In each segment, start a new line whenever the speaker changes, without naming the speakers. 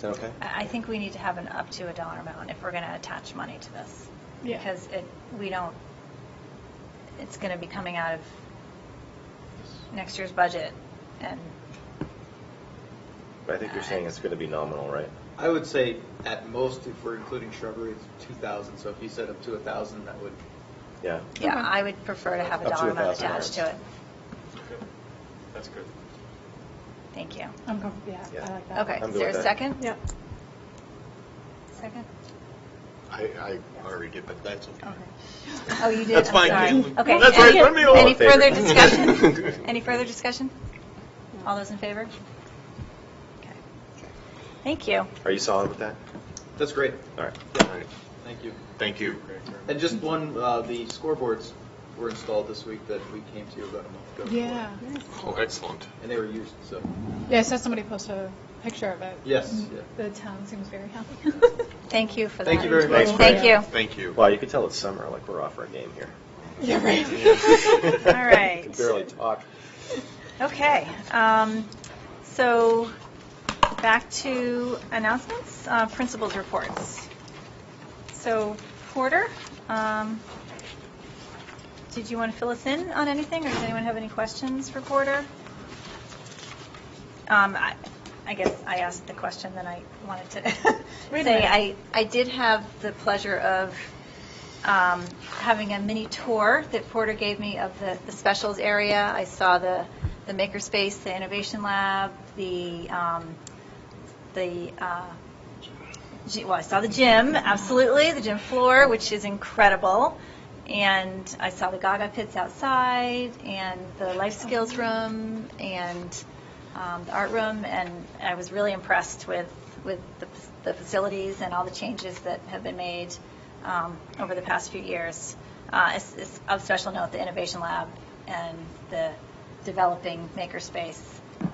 that okay?
I I think we need to have an up to a dollar amount if we're going to attach money to this.
Yeah.
Because it, we don't, it's going to be coming out of next year's budget, and
But I think you're saying it's going to be nominal, right?
I would say at most, if we're including shrubbery, it's two thousand, so if you said up to a thousand, that would.
Yeah.
yeah,
Okay.
I would prefer to have a
Up to
dollar amount
$1,000.
attached to it.
That's good.
Thank you.
I'm comfortable, yeah,
Yeah.
I like that.
Okay,
I'm
is
good
there a
with that.
second?
Yep.
Second?
I, I already did, but that's okay.
Okay. Oh, you did, I'm
That's fine,
sorry.
Caitlin.
Okay.
That's right,
Any-
let me know.
Any
All in favor.
further discussion? Any further discussion? All those in favor? Okay. Thank you.
Are you solid with that?
That's great,
All right.
All right.
thank you.
Thank you.
And just one, uh, the scoreboards were installed this week that we came to about a month ago.
Yeah.
Oh, excellent.
And they were used, so,
Yeah, I saw somebody post a picture of it. Mm.
yes, yeah.
The town seems very happy.
Thank you for that.
Thank you very
much.
Thank you.
Thank you.
Well, you can tell it's summer, like we're off our game here.
Yeah, right.
All right.
Can barely talk.
Okay, um, so back to announcements, uh, principals' reports. So Porter, um, did you want to fill us in on anything, or does anyone have any questions for Porter? Um, I I guess I asked the question that I wanted to
Wait a
say.
minute.
I I did have the pleasure of um, having a mini tour that Porter gave me of the the specials area. I saw the the makerspace, the innovation lab, the, um, the uh, gy- well, I saw the gym, absolutely, the gym floor, which is incredible. And I saw the Gaga pits outside, and the life skills room, and um, the art room, and I was really impressed with, with the f- the facilities and all the changes that have been made um, over the past few years. Uh, it's- it's Of special note, the innovation lab and the developing makerspace,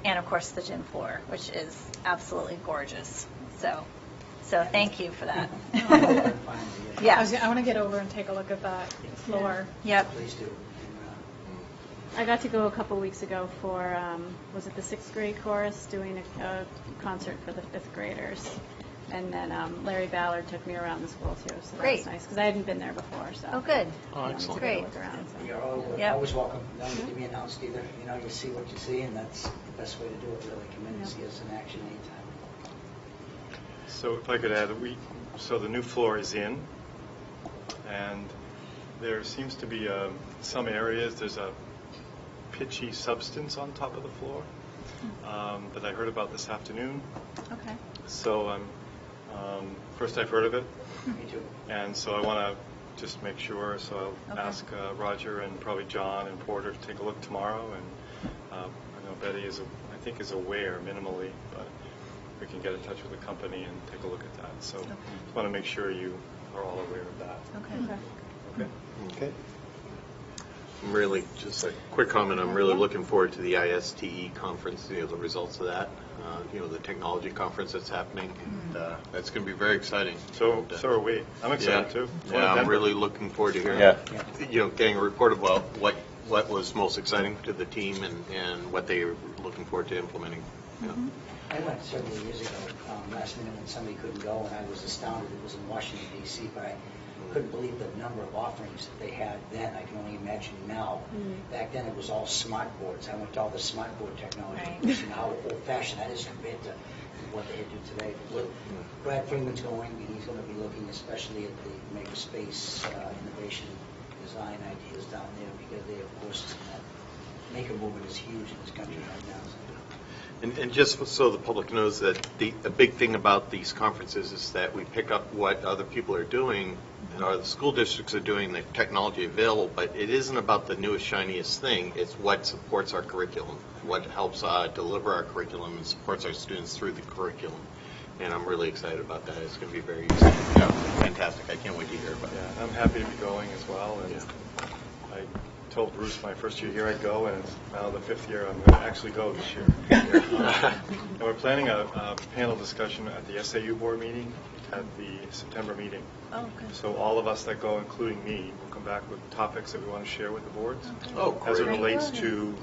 and of course, the gym floor, which is absolutely gorgeous. So so thank you for that.
I
Yeah,
was, gonna- I want to get over and take a look at that floor.
yep,
Please do.
I got to go a couple weeks ago for, um, was it the sixth grade chorus doing a, a concert for the fifth graders? And then um, Larry Ballard took me around the school too, so that
Great.
was nice because I hadn't been there before. So
oh, good.
I wanted to
excellent.
get a
Great.
look around, so.
uh, You're al-
Yep.
always welcome. You don't need to be announced either. You know, you see what you see, and that's the best way to do it, really. Come in and see us in action anytime.
So if I could add, we, so the new floor is in, and there seems to be um, some areas, there's a pitchy substance on top of the floor um, that I heard about this afternoon.
Okay.
So I'm, um, first I've heard of it,
Me too.
and so I want to just make sure, so I'll
Okay.
ask uh, Roger and probably John and Porter to take a look tomorrow, and um, I know Betty is, a- I think is aware minimally, but we can get in touch with the company and take a look at that. So
Okay.
just want to make sure you are all aware of that.
Okay.
Okay?
Okay. I'm really, just a quick comment, I'm really looking forward to the ISTE E conference, you know, the results of that, uh, you know, the technology conference that's happening. and, uh, That's going to be very exciting.
So,
And, uh,
so are we. I'm excited too. It's one
Yeah, I'm
Denver.
really looking forward to hearing.
Yeah.
You know, getting a report about what, what was most exciting to the team and, and what they were looking forward to implementing. Yeah.
I went several years ago, um, last minute when somebody couldn't go, and I was astounded. It was in Washington DC, but I couldn't believe the number of offerings that they had then. I can only imagine now. Back then, it was all smart boards. I went to all the smart board technology.
Right.
which Now, old fashioned, that is compared to what they do today. But Brad Freeman's going, and he's going to be looking especially at the makerspace uh, innovation design ideas down there because they, of course, that maker movement is huge in this country right now.
And, and just so the public knows that the, the big thing about these conferences is that we pick up what other people are doing and our school districts are doing, the technology available, but it isn't about the newest shiniest thing. It's what supports our curriculum, what helps uh, deliver our curriculum and supports our students through the curriculum. And I'm really excited about that. It's going to be very useful. Yeah, fantastic. I can't wait to hear about it.
Yeah, I'm happy to be going as well. And I told Bruce my first year here I'd go, and it's now the fifth year I'm going to actually go this year. And we're planning a, a panel discussion at the SAU board meeting at the September meeting.
Oh, good.
So all of us that go, including me, will come back with topics that we want to share with the boards.
Oh,
As it
great.
relates to